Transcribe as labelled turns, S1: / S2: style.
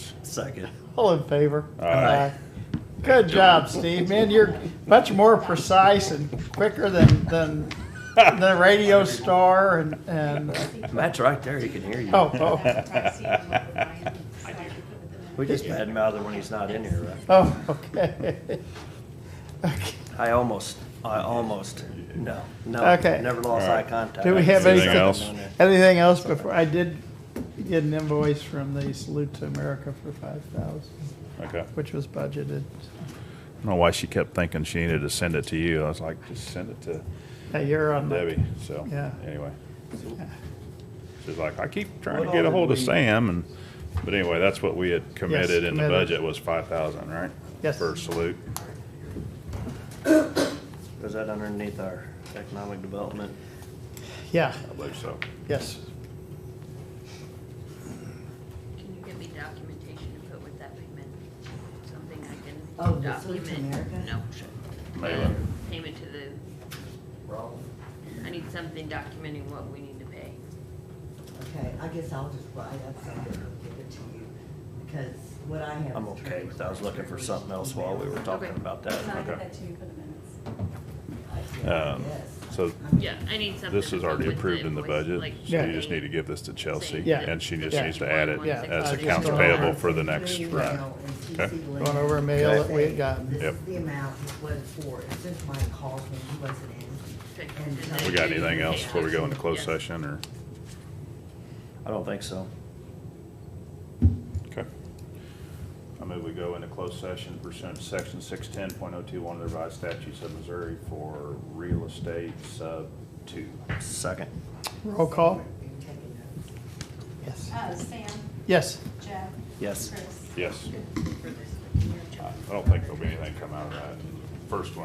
S1: Second.
S2: All in favor?
S1: Aye.
S2: Good job, Steve. Man, you're much more precise and quicker than, than the radio star and, and,
S1: Matt's right there, he can hear you.
S2: oh, oh,
S3: Uh,
S1: We just badmouth him when he's not in here, right?
S2: oh, okay. Okay.
S1: I almost, I almost, no, no.
S2: Okay.
S1: Never lost eye contact.
S2: Do we have
S4: Anything
S2: anything,
S4: else?
S2: anything else before, I did get an invoice from the Salute to America for five thousand,
S4: Okay. I
S2: which was budgeted.
S4: don't know why she kept thinking she needed to send it to you. I was like, just send it to
S2: Hey, you're on the,
S4: Debbie. So
S2: Yeah.
S4: anyway, she's like, I keep trying to
S1: What
S4: get a
S1: all
S4: hold
S1: did
S4: of
S1: we-
S4: Sam, and but anyway, that's what we had committed in the
S2: committed.
S4: budget was five thousand, right?
S2: Yes.
S4: For salute.
S1: Is that underneath our economic development?
S2: yeah,
S4: I believe so.
S2: yes.
S5: Can you give me documentation to put with that payment? Something I can
S6: Oh,
S5: document?
S6: the Food to America?
S5: No. Uh,
S4: Maybe.
S5: Payment to the,
S1: Wrong.
S5: I need something documenting what we need to pay.
S6: Okay, I guess I'll just write up something and give it to you, because what I have.
S1: I'm
S6: is
S1: okay with that. I was looking for
S6: attorney's
S1: something else while we were talking
S5: Okay.
S1: about
S3: So I
S1: that.
S3: get
S4: Okay.
S3: that to you for the minutes.
S4: Um,
S6: Yes.
S4: so
S5: Yeah, I need something.
S4: this is
S5: to put
S4: already
S5: with the
S4: approved in the
S5: invoice,
S4: budget,
S5: like
S4: so you
S5: saying-
S4: just need to give this to Chelsea,
S2: Yeah.
S4: and she just
S2: Yeah.
S4: needs to add it
S2: Yeah.
S4: as
S2: Uh,
S4: accounts
S2: just-
S4: payable for the next run. Okay.
S2: Going over a mail that we had gotten.
S6: This is
S4: Yep.
S6: the amount it was for, It's since Mike called when he wasn't in.
S5: Okay.
S6: And
S5: And
S4: We
S5: then
S4: got
S5: you
S4: anything
S5: pay
S4: else before we go into closed
S5: Yes.
S4: session, or?
S1: I don't think so.
S4: Okay. I move we go into closed session pursuant to section six ten point oh two one of the revised statutes of Missouri for real estate sub two.
S1: Second.
S2: Roll call?
S6: And taking notes.
S2: Yes.
S3: Uh, Sam,
S2: Yes.
S3: Jeff.
S1: Yes.
S3: Chris.
S4: Yes,
S3: For this.
S4: I don't think there'll be anything come out of that first one.